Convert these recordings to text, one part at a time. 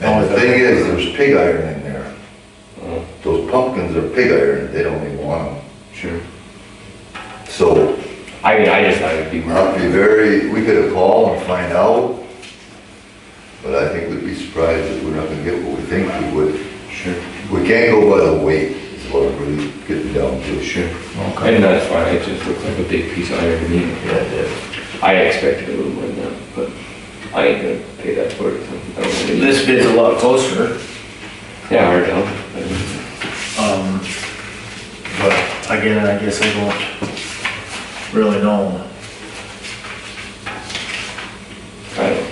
The thing is, there's pig iron in there. Those pumpkins are pig iron, they don't even want them. Sure. So I mean, I just thought it'd be we'll have to be very, we could have called and find out, but I think we'd be surprised if we're not gonna get what we think we would. Sure, We can't go by the weight, is what I'm really getting down to. sure. And that's fine, it just looks like a big piece of iron to me. Yeah, yeah. I expected a little more than that, but I ain't gonna pay that for it. so I don't really- This bid's a lot closer, Yeah, hard to help. um, but again, I guess I don't really know. I don't.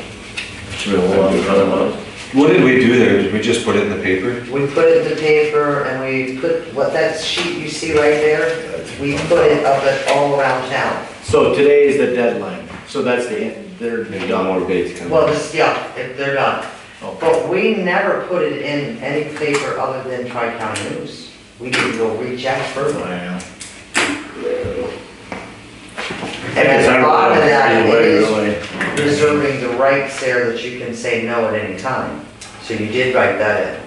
It's real long. What did we do there? Did we just put it in the paper? We put it in the paper and we put, what that sheet you see right there, we put it up it all around town. So today is the deadline, so that's the end, they're Maybe not done. Oh, more bids coming. Well, this, yeah, if they're done. Okay. But we never put it in any paper other than Tri-County News. We didn't go reach out further. I know. And at the bottom of that Anyway, is really. reserving the rights there that you can say no at any time. So you did write that in.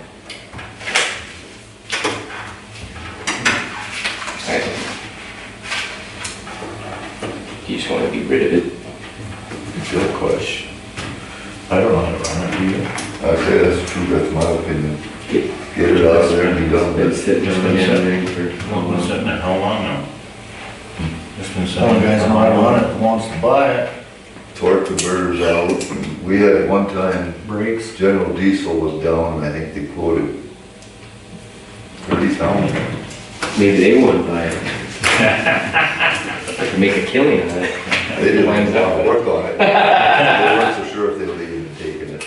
I don't. You just wanna be rid of it. Good question. I don't know how to run it, do you? I say that's true, that's my opinion. Get- Get it out of there and be done with it. It's sitting in the engineering for. Well, we're sitting at how long now? It's been sitting. Some guys might want it, wants to buy it, torque converters out. We had one time, breaks. General Diesel was down, and I think they quoted thirty thousand. Maybe they wouldn't buy it. I could make a killing on it. They didn't want to work on it. They weren't so sure if they would even taken it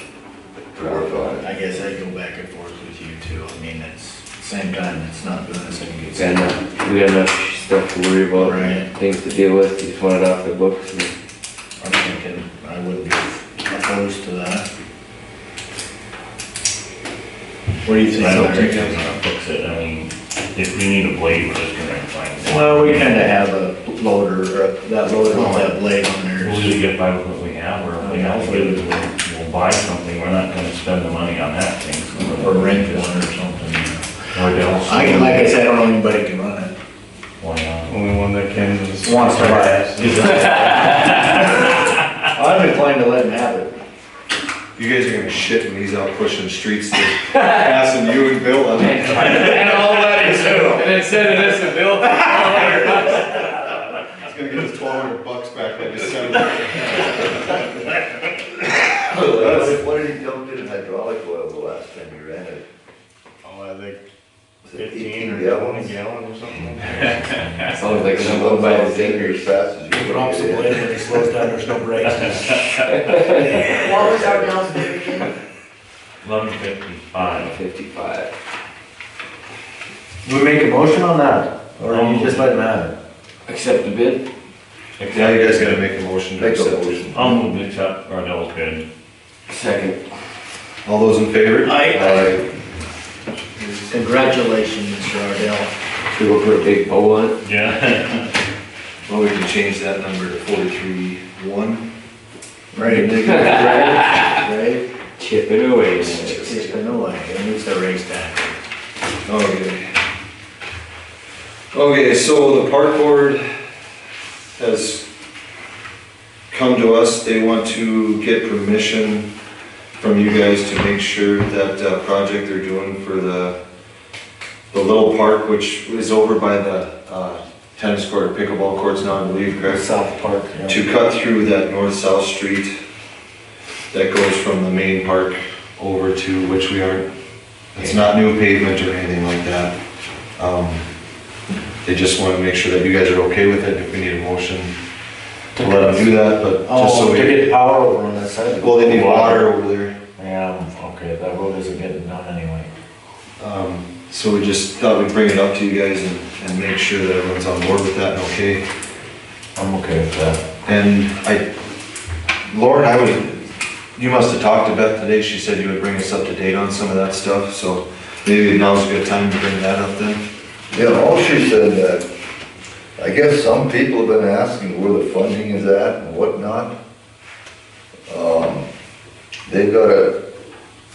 to work on it. I guess I go back and forth with you too, I mean, it's, same time, it's not doing us any We good. got enough, we got enough stuff to worry about, and Right. things to deal with, you just want it off the books. and- I'm thinking I wouldn't be opposed to that. What do you think? I don't think Larry? that's gonna fix it, I mean, if we need a blade, we're just gonna find one. Well, we kinda have a loader, or that loader will have blade on We'll either there. get by with what we have, or if we have, we'll, we'll buy something, we're not gonna spend the money on that thing. so- Or rent one or something. you know. Or they'll. I can, like I said, I don't know anybody can run it. Why not? Only one that can is. Wants to buy it. I'm inclined to let him have it. You guys are gonna shit when he's out pushing streets to passing you and Bill on it. And all that is too. then send it as a bill. He's gonna get his twelve hundred bucks back like his son. That's What did- What did he dump in hydraulic oil the last time he ran it? Oh, I think Was it 18 gallons? gallon or something. Sounds like someone by the As fingers. fast as you can get it. when he slows down, there's no brakes. What was our bills there again? Eleven fifty-five. Fifty-five. Do we make a motion on that, or Um, you just let him have it? Accept the bid? Now you guys gotta make a motion to Make a accept. motion. I'll move this up, or that was good. Second. All those in favor? Aye. Congratulations, Mr. Ardell. Should we go for a big bowl on it? Yeah. Well, we can change that number to forty-three one. Right. Right? Chip it away. man. It's been a while, it needs to raise that. Okay. Okay, so the park board has come to us, they want to get permission from you guys to make sure that uh, project they're doing for the, the little park, which is over by the uh, tennis court, pickleball courts now, I believe, correct? South Park. to cut through that north-south street that goes from the main park over to which we aren't, it's not new pavement or anything like that. Um, They just want to make sure that you guys are okay with it, if we need a motion to let them do that, but just so Oh, to we, get power over on that side. well, they need water over there. Yeah, okay, that road isn't getting done anyway. Um, So we just thought we'd bring it up to you guys and, and make sure that everyone's on board with that and okay. I'm okay with that. And I, Lauren, I would, you must have talked to Beth today, she said you would bring us up to date on some of that stuff, so maybe now's a good time to bring that up then. Yeah, all she said that, I guess some people have been asking where the funding is at and whatnot. Um, They've got a,